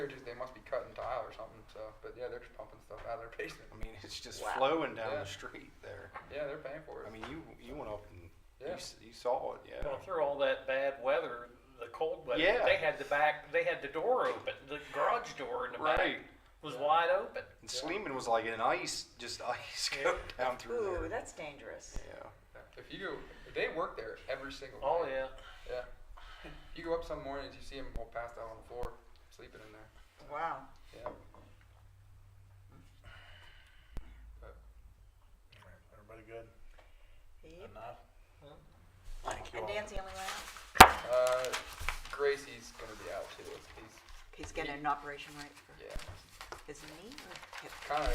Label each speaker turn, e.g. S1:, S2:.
S1: They're just, they must be cutting tile or something, so, but yeah, they're just pumping stuff out of their basement.
S2: I mean, it's just
S3: Wow.
S2: flowing down
S1: Yeah.
S2: the street there.
S1: Yeah, they're paying for it.
S2: I mean, you you went up and you
S1: Yeah.
S2: s you saw it, yeah.
S4: Well, through all that bad weather, the cold weather,
S2: Yeah.
S4: they had the back, they had the door open, the garage door in the back
S2: Right.
S4: was wide open.
S2: And Sleeman was like an ice, just ice
S4: Yeah.
S2: going down through
S3: Ooh,
S2: there.
S3: that's dangerous.
S2: yeah.
S1: If you go, they work there every single day.
S4: Oh yeah,
S1: Yeah. You go up some mornings, you see them all passed out on the floor, sleeping in there.
S3: Wow.
S1: Yeah.
S5: Everybody good?
S3: Yep.
S5: Enough?
S4: Well.
S5: Thank you
S3: And
S5: all.
S3: Dan's the only one out.
S1: Uh, Gracie's gonna be out too. He's,
S3: He's getting an operation right for
S1: yeah,
S3: his knee or hip.
S1: kinda